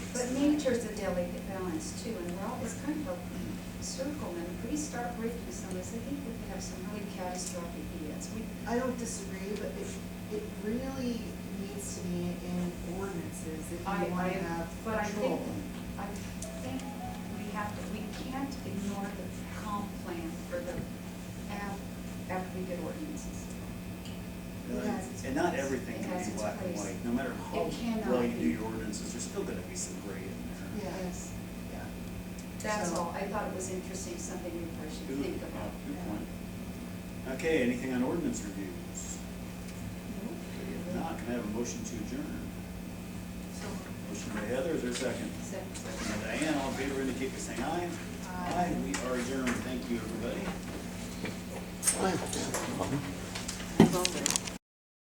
Signatures a delicate balance too, and we're all, it's kind of a circle, and if we start breaking some of this, I think we could have some really catastrophic events. We, I don't disagree, but it, it really needs to be in ordinances if I, you want to I, have but I control. think, I think we have to, we can't ignore the comp plan for the, af- after we get ordinances. It has its And not place. everything It can has be its black and place. white, no matter how It cannot well you do be. your ordinances, there's still gonna be some gray in there. Yeah. Yes, Yeah. that's all. So- I thought it was interesting, something we probably should Good, think yeah, about. good point. Okay, anything on ordinance reviews? Mm-hmm. If not, can I have a motion to adjourn? So, Motion by Heather, is there a second? second. Second by Diane, all in favor indicate by saying aye. Aye. We are adjourned, thank you, everybody. That's all there.